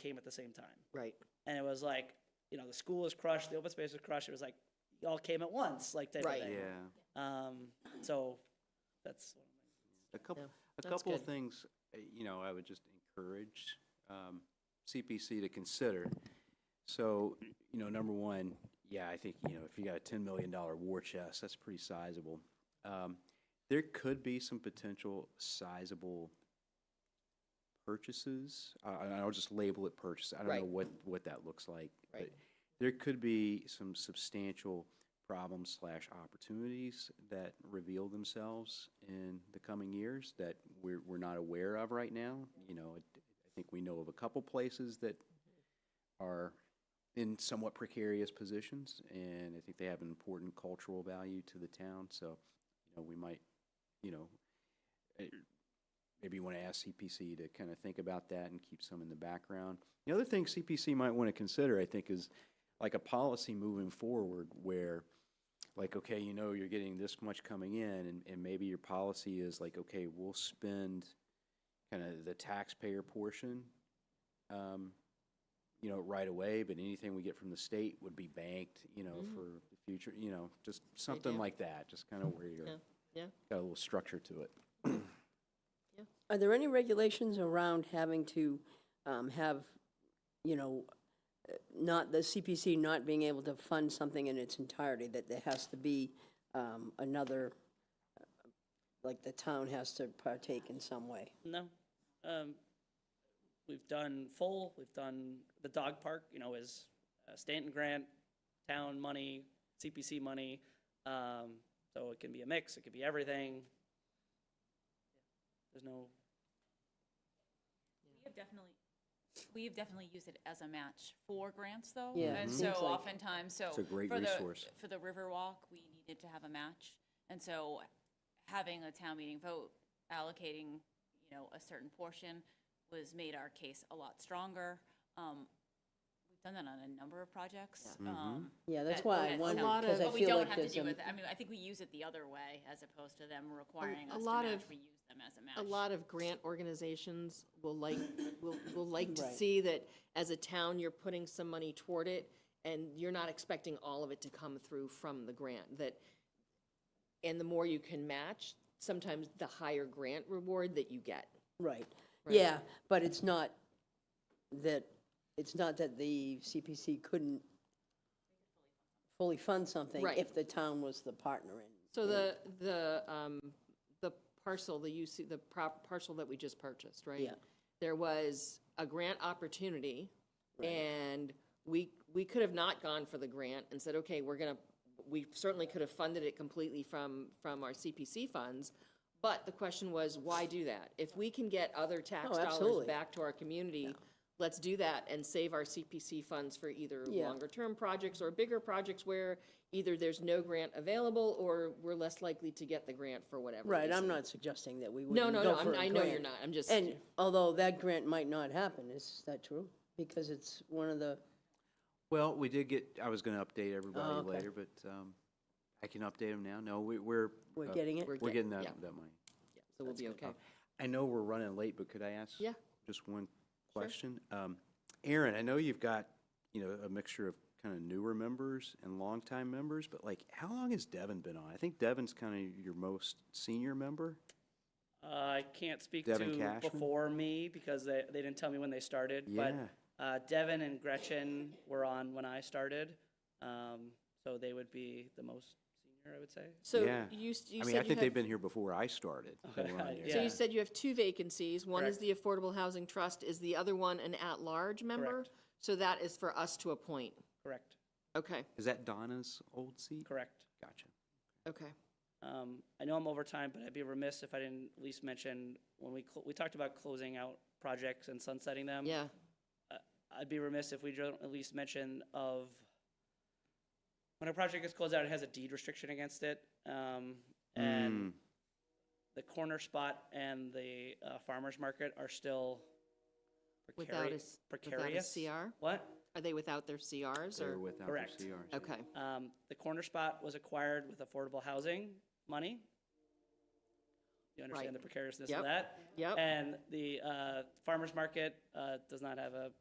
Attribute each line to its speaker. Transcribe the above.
Speaker 1: came at the same time.
Speaker 2: Right.
Speaker 1: And it was like, you know, the school was crushed, the open space was crushed. It was like, you all came at once, like type
Speaker 2: Right.
Speaker 1: of
Speaker 3: Yeah,
Speaker 1: thing. Um, so that's one of my
Speaker 3: a couple,
Speaker 2: Yeah,
Speaker 3: a
Speaker 2: that's
Speaker 3: couple of
Speaker 2: good.
Speaker 3: things, uh, you know, I would just encourage um, CPC to consider. So, you know, number one, yeah, I think, you know, if you got a ten million dollar war chest, that's pretty sizable. Um, There could be some potential sizable purchases. I, I- I'll just label it purchase. I don't
Speaker 2: Right.
Speaker 3: know what, what that looks like. but
Speaker 2: Right.
Speaker 3: There could be some substantial problems slash opportunities that reveal themselves in the coming years that we're, we're not aware of right now. You know, I I think we know of a couple places that are in somewhat precarious positions, and I think they have an important cultural value to the town, so, you know, we might, you know, eh, maybe you want to ask CPC to kind of think about that and keep some in the background. The other thing CPC might want to consider, I think, is like a policy moving forward where, like, okay, you know, you're getting this much coming in, and, and maybe your policy is like, okay, we'll spend kind of the taxpayer portion, um, you know, right away, but anything we get from the state would be banked, you know,
Speaker 2: Mm.
Speaker 3: for the future, you know, just something
Speaker 2: idea.
Speaker 3: like that, just kind of where you're,
Speaker 2: Yeah, yeah.
Speaker 3: got a little structure to it.
Speaker 2: Are there any regulations around having to um, have, you know, uh, not, the CPC not being able to fund something in its entirety, that there has to be um, another, uh, like the town has to partake in some way?
Speaker 1: No. Um, we've done full, we've done the dog park, you know, is uh, Stanton grant, town money, CPC money. Um, so it can be a mix, it could be everything. There's no,
Speaker 4: We have definitely, we've definitely used it as a match for grants, though.
Speaker 2: Yeah,
Speaker 4: And
Speaker 2: Mhm.
Speaker 4: so
Speaker 2: seems like-
Speaker 4: oftentimes, so.
Speaker 3: It's a great
Speaker 4: for the-
Speaker 3: resource.
Speaker 4: For the Riverwalk, we needed to have a match. And so having a town meeting vote allocating, you know, a certain portion was, made our case a lot stronger. Um, We've done that on a number of projects. um,
Speaker 2: Yeah, that's
Speaker 4: that-
Speaker 2: why I
Speaker 4: that
Speaker 2: wonder,
Speaker 4: sound-
Speaker 2: because I
Speaker 4: But we
Speaker 2: feel
Speaker 4: don't
Speaker 2: like
Speaker 4: have to
Speaker 2: there's
Speaker 4: do
Speaker 2: a,
Speaker 4: it, I mean, I think we use it the other way as opposed to them requiring
Speaker 5: a
Speaker 4: us to
Speaker 5: lot
Speaker 4: match.
Speaker 5: of-
Speaker 4: We use them as a match.
Speaker 5: a lot of grant organizations will like, will, will like to
Speaker 2: Right.
Speaker 5: see that as a town, you're putting some money toward it, and you're not expecting all of it to come through from the grant, that, and the more you can match, sometimes the higher grant reward that you get.
Speaker 2: right. Yeah, but it's not that, it's not that the CPC couldn't fully fund something
Speaker 5: Right.
Speaker 2: if the town was the partner in.
Speaker 5: So the, the, um, the parcel, the UC, the prop, parcel that we just purchased, right?
Speaker 2: Yeah.
Speaker 5: There was a grant opportunity, and we, we could have not gone for the grant and said, okay, we're gonna, we certainly could have funded it completely from, from our CPC funds, but the question was, why do that? If we can get other tax dollars
Speaker 2: Oh, absolutely.
Speaker 5: back to our community, let's do that and save our CPC funds for either
Speaker 2: Yeah.
Speaker 5: longer-term projects or bigger projects where either there's no grant available or we're less likely to get the grant for whatever
Speaker 2: Right, I'm
Speaker 5: reason.
Speaker 2: not suggesting that we
Speaker 5: No,
Speaker 2: wouldn't
Speaker 5: no,
Speaker 2: go
Speaker 5: no, I'm-
Speaker 2: for a
Speaker 5: I know you're
Speaker 2: grant.
Speaker 5: not, I'm just.
Speaker 2: And although that grant might not happen, is that true? Because it's one of the,
Speaker 3: Well, we did get, I was gonna update
Speaker 2: Oh,
Speaker 3: everybody
Speaker 2: okay.
Speaker 3: later, but, um, I can update them now. No, we, we're.
Speaker 2: we're
Speaker 3: uh,
Speaker 2: getting it?
Speaker 5: we're-
Speaker 3: We're
Speaker 5: get-
Speaker 3: getting that,
Speaker 5: yeah.
Speaker 3: that money.
Speaker 5: So we'll be okay.
Speaker 3: Uh, I know we're running late, but could I ask?
Speaker 5: Yeah.
Speaker 3: Just one question? Um, Aaron, I know you've got, you know, a mixture of kind of newer members and longtime members, but like, how long has Devin been on? I think Devin's kind of your most senior member.
Speaker 1: Uh, I can't speak
Speaker 3: Devin
Speaker 1: to
Speaker 3: Cashman?
Speaker 1: before me because they, they didn't tell me when they started. But
Speaker 3: Yeah.
Speaker 1: uh, Devin and Gretchen were on when I started. Um, so they would be the most senior, I would say.
Speaker 5: So
Speaker 3: Yeah.
Speaker 5: you, s- you
Speaker 3: I mean, I
Speaker 5: said you
Speaker 3: think they've
Speaker 5: have,
Speaker 3: been here before I started. They were on
Speaker 1: Yeah.
Speaker 3: here.
Speaker 5: so you said you have two vacancies. One is
Speaker 1: Correct.
Speaker 5: the Affordable Housing Trust, is the other one an at-large member?
Speaker 1: Correct.
Speaker 5: So that is for us to appoint.
Speaker 1: Correct,
Speaker 5: Okay,
Speaker 3: Is that Donna's old seat?
Speaker 1: correct.
Speaker 3: Gotcha.
Speaker 5: okay.
Speaker 1: Um, I know I'm over time, but I'd be remiss if I didn't at least mention, when we, cl- we talked about closing out projects and sunsetting them.
Speaker 2: Um,
Speaker 5: Yeah,
Speaker 1: I'd be remiss if we don't at least mention of, when a project gets closed out, it has a deed restriction against it. Um, and the corner spot and the uh, farmer's market are still
Speaker 5: without a,
Speaker 1: precarious.
Speaker 5: s- without a
Speaker 1: Precarious?
Speaker 5: CR?
Speaker 1: What?
Speaker 5: Are they without their CRs
Speaker 3: They're
Speaker 5: or?
Speaker 3: without their
Speaker 1: Correct.
Speaker 3: CRs.
Speaker 5: Okay,
Speaker 1: Um, the corner spot was acquired with affordable housing money. You
Speaker 5: Right.
Speaker 1: understand the precariousness
Speaker 5: Yep.
Speaker 1: of that?
Speaker 5: yep,
Speaker 1: And the uh, farmer's market uh, does not have a